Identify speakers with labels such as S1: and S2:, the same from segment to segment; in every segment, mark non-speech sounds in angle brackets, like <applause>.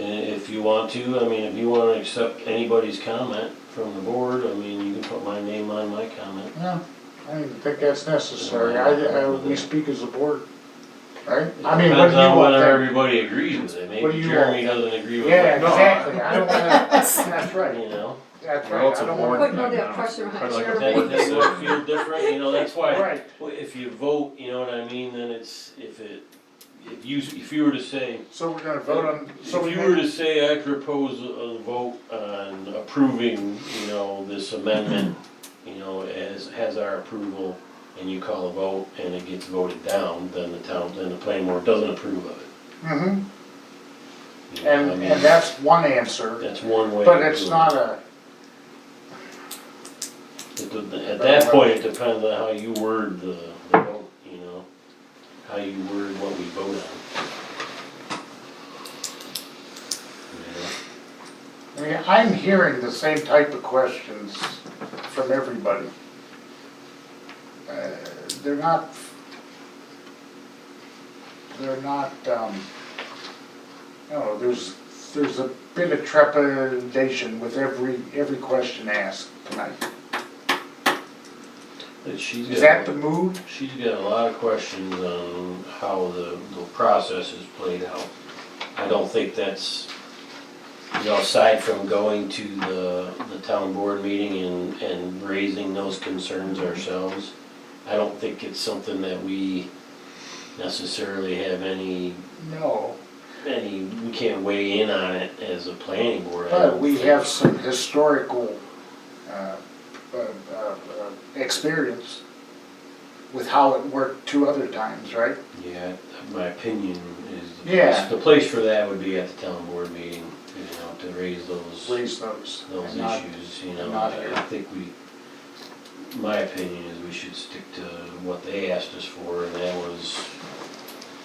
S1: Eh, you want to, I mean, if you wanna accept anybody's comment from the board, I mean, you can put my name on my comment.
S2: No, I don't even think that's necessary, I, I, we speak as a board, right? I mean, what do
S1: Depends on
S2: you want
S1: whether
S2: there?
S1: everybody agrees with it,
S2: What do
S1: maybe
S2: you
S1: Jeremy
S2: want?
S1: doesn't agree with
S2: Yeah,
S1: it,
S2: exactly, I don't wanna, that's right,
S1: you know?
S2: that's
S3: Well,
S2: right,
S3: it's
S2: I
S3: a
S2: don't
S3: board.
S2: wanna.
S4: Putting all that pressure on
S3: Kinda like a
S1: That,
S3: board.
S4: Jeremy.
S1: that would feel different, you know, that's why.
S2: Right,
S1: Well, if you vote, you know what I mean, then it's, if it, if you, if you were to say,
S2: so we're gonna vote on,
S1: if
S2: so we
S1: you were
S2: make,
S1: to say, I propose a- a vote on approving, you know, this amendment, you know, as, has our approval, and you call a vote, and it gets voted down, then the town, then the planning board doesn't approve of it.
S2: hmm
S1: You know,
S2: and,
S1: I mean,
S2: and that's one answer,
S1: That's one way.
S2: but
S1: to
S2: it's
S1: do it.
S2: not a,
S1: It de- At that point, it depends on how you word the, the vote, you know, how you word what we vote on.
S2: I mean, I'm hearing the same type of questions from everybody. Uh, They're not, they're not, um, you know, there's, there's a bit of trepidation with every, every question asked tonight.
S1: But she's
S2: Is that
S1: got,
S2: the mood?
S1: she's got a lot of questions on how the, the process is played out. I don't think that's, you know, aside from going to the, the town board meeting and, and raising those concerns ourselves, I don't think it's something that we necessarily have any
S2: No,
S1: any, we can't weigh in on it as a planning board. I
S2: but
S1: don't
S2: we
S1: think.
S2: have some historical, uh, uh, uh, uh, experience with how it worked two other times, right?
S1: Yeah, my opinion is the
S2: Yeah.
S1: place, the place for that would be at the town board meeting, you know, to raise those,
S2: raise those.
S1: those
S2: and not-
S1: issues, you know.
S2: not
S1: I
S2: here.
S1: think we, my opinion is we should stick to what they asked us for, and that was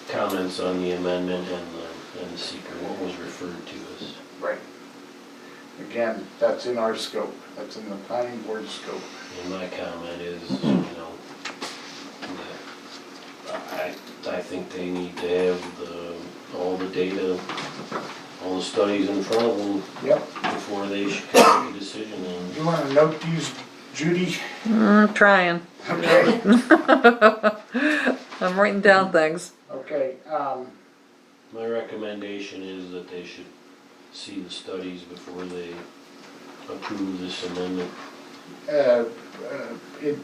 S1: comments on the amendment and the, and the seeker, what was referred to as.
S2: Right. Again, that's in our scope, that's in the planning board scope.
S1: And my comment is, you know, that I, I think they need to have the, all the data, all the studies in front of them
S2: Yep.
S1: before they should make a decision and
S2: You wanna note these, Judy?
S5: Mm, trying. <laughs>
S2: Okay,
S5: I'm writing down things.
S2: okay, um,
S1: my recommendation is that they should see the studies before they approve this amendment.
S2: uh, uh, it,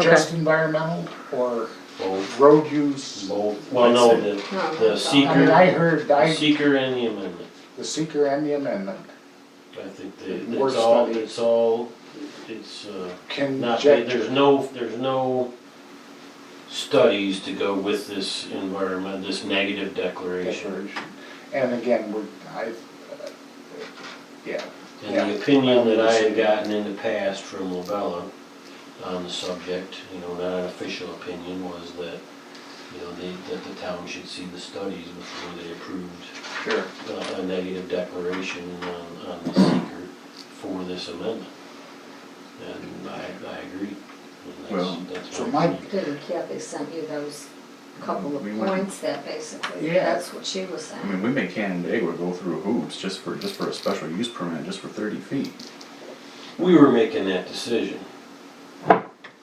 S2: just environmental or
S1: Both,
S2: road use?
S1: both, well, no, the,
S4: No,
S1: the
S4: that's all.
S1: seeker-
S2: I mean, I heard,
S1: the
S2: I,
S1: seeker and the amendment.
S2: the seeker and the amendment,
S1: I think that,
S2: More
S1: it's all,
S2: studies.
S1: it's all, it's, uh, Not, there's
S2: conjecture.
S1: no, there's no studies to go with this environment, this negative declaration.
S2: Declaration. And again, we're, I, uh, yeah,
S1: And the opinion that I had gotten in the past from Lobella on the subject, you know, not an official opinion, was that, you know, they, that the town should see the studies before they approved
S2: sure.
S1: a, a negative declaration on, on the seeker for this amendment. And I, I agree. And that's-
S3: Well,
S1: that's
S2: so my-
S1: opinion.
S4: Didn't Kathy sent you those couple of
S3: We went-
S4: points that basically,
S2: Yeah.
S4: that's what she was
S3: I mean,
S4: saying.
S3: we make Canandaigua go through hoops just for, just for a special use permit, just for thirty feet.
S1: We were making that decision.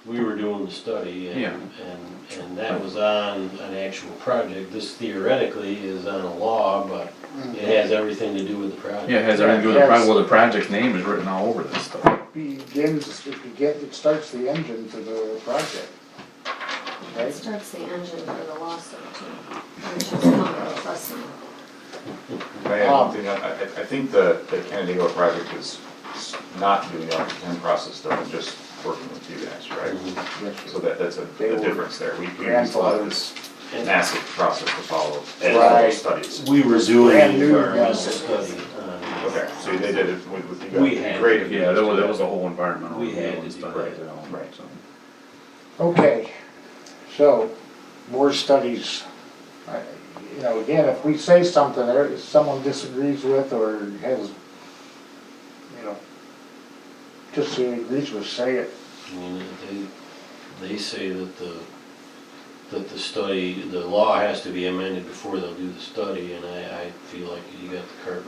S1: We were doing the study and,
S3: Yeah.
S1: and, and that was on an actual project. This theoretically is on a law, but it has everything to do with the project.
S3: Yeah, it has everything to do with the project, well, the project's name is written all over this stuff.
S2: begins, it begins, it starts the engine to the project.
S4: It
S2: Right?
S4: starts the engine for the lawsuit too. And she's not really fussing.
S6: Can I add
S2: Um,
S6: one thing? I, I I think the, the Canandaigua project is s- not doing the applicant process, though, and just working with you guys, right? So that, that's a,
S2: Mm-hmm. They
S6: a
S2: were
S6: difference there. We, we
S2: grandfathered.
S6: still have this massive process to follow, and all
S2: Right.
S6: those studies.
S1: We were doing
S2: Brand
S1: the
S2: new
S1: environmental
S2: process.
S1: study on,
S6: Okay, so they did it with, with you guys.
S1: We had-
S6: Great if you
S3: Yeah,
S6: guys
S3: that was,
S6: did
S3: that was a whole environmental
S1: We
S3: review
S1: had to
S3: and
S1: do
S3: stuff
S1: that.
S3: like that.
S6: Right.
S3: so.
S2: Okay, so, more studies. I- You know, again, if we say something there, someone disagrees with or has, you know, disagrees with, say it.
S1: I mean, they, they say that the, that the study, the law has to be amended before they'll do the study and I, I feel like you got the cart